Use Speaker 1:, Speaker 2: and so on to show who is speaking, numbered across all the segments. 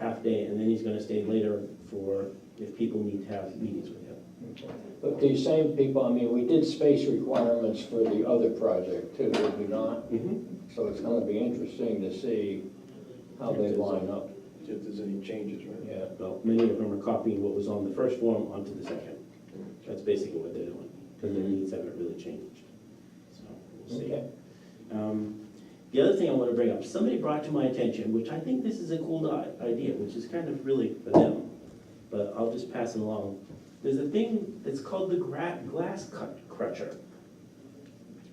Speaker 1: half day, and then he's gonna stay later for, if people need to have meetings with him.
Speaker 2: But these same people, I mean, we did space requirements for the other project too, did we not? So it's gonna be interesting to see how they line up,
Speaker 3: See if there's any changes, right?
Speaker 2: yeah.
Speaker 1: Well, many of them are copying what was on the first form onto the second. That's basically what they're doing, because their needs haven't really changed. So, we'll see.
Speaker 2: Okay.
Speaker 1: Um, The other thing I want to bring up, somebody brought to my attention, which I think this is a cool i- idea, which is kind of really for them, but I'll just pass it along. There's a thing that's called the gra- glass cut crutcher.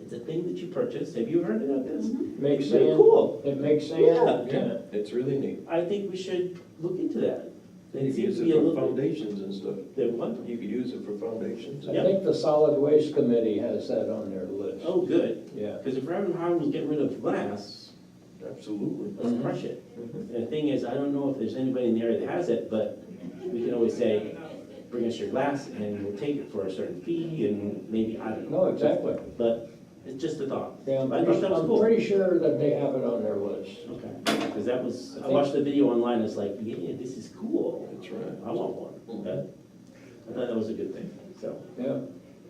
Speaker 1: It's a thing that you purchase. Have you heard about this?
Speaker 2: Makes
Speaker 1: It's really
Speaker 2: sense.
Speaker 1: cool.
Speaker 2: It makes sense?
Speaker 1: Yeah.
Speaker 3: It's really neat.
Speaker 1: I think we should look into that.
Speaker 3: You
Speaker 1: It
Speaker 3: could
Speaker 1: seems
Speaker 3: use
Speaker 1: to
Speaker 3: it
Speaker 1: be a
Speaker 3: for
Speaker 1: little bit.
Speaker 3: foundations and stuff.
Speaker 1: That one?
Speaker 3: You could use it for foundations.
Speaker 2: I think the solid waste committee has that on their list.
Speaker 1: Oh, good,
Speaker 2: Yeah.
Speaker 1: because if Reverend Harlan was getting rid of glass,
Speaker 3: Absolutely.
Speaker 2: Mm-hmm.
Speaker 1: let's crush it. And the thing is, I don't know if there's anybody in the area that has it, but we can always say, bring us your glass and we'll take it for a certain fee and maybe, I don't know.
Speaker 2: No, exactly.
Speaker 1: But it's just a thought.
Speaker 2: Yeah, I'm
Speaker 1: I thought
Speaker 2: pretty,
Speaker 1: that was
Speaker 2: I'm
Speaker 1: cool.
Speaker 2: pretty sure that they have it on their list.
Speaker 1: Okay, because that was,
Speaker 2: I
Speaker 1: I
Speaker 2: think-
Speaker 1: watched the video online, it's like, yeah, this is cool.
Speaker 3: That's right.
Speaker 1: I want one. That- I thought that was a good thing, so
Speaker 2: Yeah,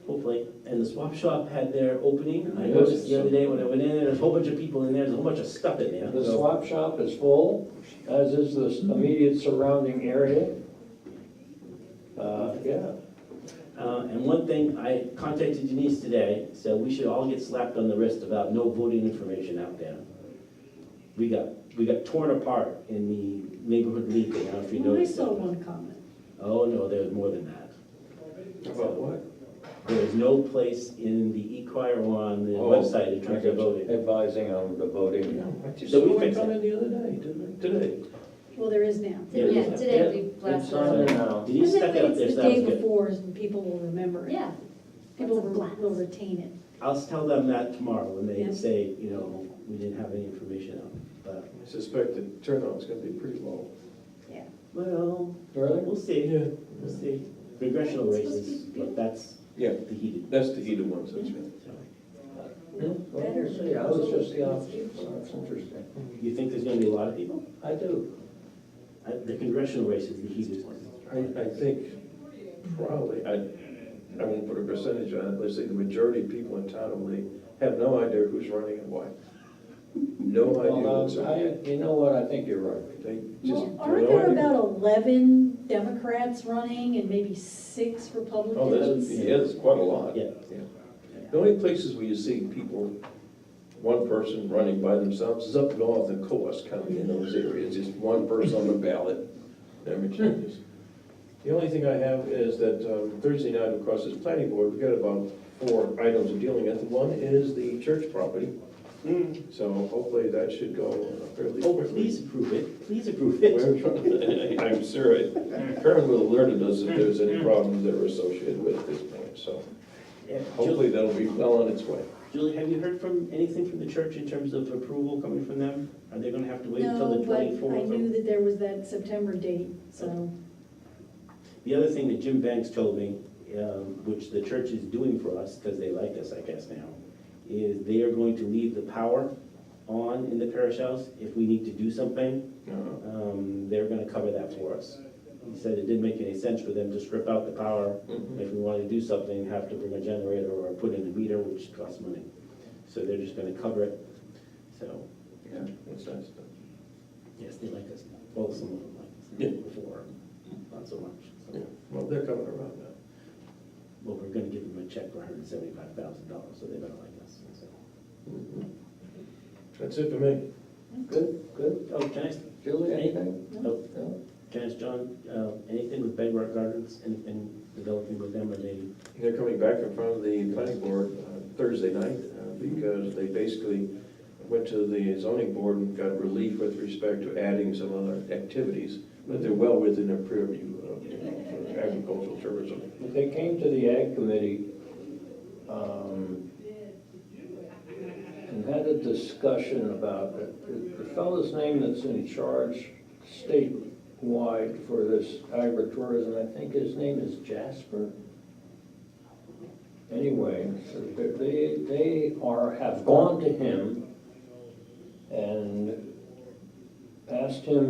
Speaker 1: hopefully. And the swap shop had their opening. I
Speaker 3: Yes.
Speaker 1: noticed the other day when I went in, there's a whole bunch of people in there, there's a whole bunch of stuff in there.
Speaker 2: the
Speaker 1: so-
Speaker 2: swap shop is full, as is
Speaker 1: Mm-hmm.
Speaker 2: the immediate surrounding area. Uh, yeah,
Speaker 1: Uh, And one thing, I contacted Denise today, so we should all get slapped on the wrist about no voting information out there. We got, we got torn apart in the neighborhood league, I don't know if you
Speaker 4: Well, I
Speaker 1: noticed.
Speaker 4: saw
Speaker 1: that.
Speaker 4: one comment.
Speaker 1: Oh, no, there was more than that.
Speaker 3: About what?
Speaker 1: There is no place in the e-crier or on the
Speaker 3: Oh,
Speaker 1: website in terms
Speaker 3: I
Speaker 1: of
Speaker 3: got you.
Speaker 1: voting.
Speaker 2: advising on the voting.
Speaker 3: I just
Speaker 1: So we
Speaker 3: saw one
Speaker 1: fix it.
Speaker 3: come in the other day, didn't I? Today.
Speaker 4: Well, there is now.
Speaker 1: Yeah,
Speaker 5: Yeah, today we
Speaker 1: yeah,
Speaker 5: blasted
Speaker 1: it's on there
Speaker 2: it.
Speaker 1: now.
Speaker 4: I
Speaker 1: Denise
Speaker 4: think
Speaker 1: stuck it up there,
Speaker 4: it's
Speaker 1: so
Speaker 4: the
Speaker 1: that was
Speaker 4: day
Speaker 1: good.
Speaker 4: before, and people will remember it.
Speaker 5: Yeah.
Speaker 4: People
Speaker 5: Lots of
Speaker 4: will
Speaker 5: blasts.
Speaker 4: will retain it.
Speaker 1: I'll tell them that tomorrow when they
Speaker 4: Yeah.
Speaker 1: say, you know, we didn't have any information out. But,
Speaker 3: I suspect the turnout's gonna be pretty low.
Speaker 1: well,
Speaker 2: Really?
Speaker 1: we'll see, we'll see. Regressional
Speaker 5: It's supposed to
Speaker 1: races,
Speaker 5: be-
Speaker 1: but that's
Speaker 3: Yeah,
Speaker 1: the heated
Speaker 3: that's the heated ones, that's right.
Speaker 2: Well, we'll see. I was just the opposite, so that's interesting.
Speaker 1: You think there's gonna be a lot of people?
Speaker 2: I do.
Speaker 1: Uh, The congressional race is the heated one.
Speaker 3: I, I think probably, I, I won't put a percentage on it, let's say the majority of people in town only have no idea who's running and why. No idea
Speaker 1: uh,
Speaker 3: what's
Speaker 2: Well,
Speaker 3: running.
Speaker 2: Um, I, you know what, I think you're right.
Speaker 3: They just
Speaker 4: Well,
Speaker 3: have
Speaker 4: aren't
Speaker 3: no
Speaker 4: there
Speaker 3: idea.
Speaker 4: about 11 Democrats running and maybe six
Speaker 3: Oh, there's,
Speaker 4: Republicans?
Speaker 3: yeah, there's quite a lot.
Speaker 1: Yeah.
Speaker 3: The only places where you see people, one person running by themselves is up north in Coas County in those areas, just one person on the ballot, never changes. Hmm. The only thing I have is that um, Thursday night, of course, is planning board, we've got about four items we're dealing with. One is the church property, so hopefully that should go uh, fairly
Speaker 1: Hmm. Oh,
Speaker 3: quickly.
Speaker 1: please approve it, please approve it.
Speaker 3: We're trying- I'm sure, it- Karen will alert us if there's
Speaker 1: Hmm.
Speaker 3: any problems that are associated with this point, so
Speaker 1: Yeah, Ju-
Speaker 3: hopefully that'll be well on its way.
Speaker 1: Julie, have you heard from, anything from the church in terms of approval coming from them? Are they gonna have to wait until
Speaker 4: No,
Speaker 1: the
Speaker 4: but I
Speaker 1: twenty-fourth?
Speaker 4: knew that there was that September date, so.
Speaker 1: The other thing that Jim Banks told me, um, which the church is doing for us, because they like us, I guess now, is they are going to leave the power on in the parish house if we need to do something.
Speaker 3: Uh,
Speaker 1: um, they're gonna cover that for us. He said it didn't make any sense for them to strip out the power,
Speaker 3: Mhm.
Speaker 1: if we wanted to do something, have to bring a generator or put in a meter, which costs money. So they're just gonna cover it, so,
Speaker 3: Yeah, that's nice.
Speaker 1: yes, they like us, well, some of them
Speaker 3: Yeah.
Speaker 1: like us, before, not so much.
Speaker 3: Yeah,
Speaker 1: So,
Speaker 3: Well, they're coming around now.
Speaker 1: Well, we're gonna give them a check for hundred and seventy-five thousand dollars, so they better like us, so.
Speaker 3: Mm-hmm. That's it for me.
Speaker 2: Good, good.
Speaker 1: Oh, can I, ask-
Speaker 2: Julie, anything?
Speaker 1: oh,
Speaker 2: No?
Speaker 1: can I ask John, uh, anything with Bedrock Gardens, anything developing with them, or they?
Speaker 3: They're coming back in front of the planning board uh, Thursday night uh, because they basically went to the zoning board and got relief with respect to adding some other activities, but they're well within their purview of you know, for agricultural tourism.
Speaker 2: If They came to the ag committee, um, and had a discussion about it. The- The fellow's name that's in charge statewide for this agritourism, I think his name is Jasper? Anyway, so they- they, they are, have gone to him and asked him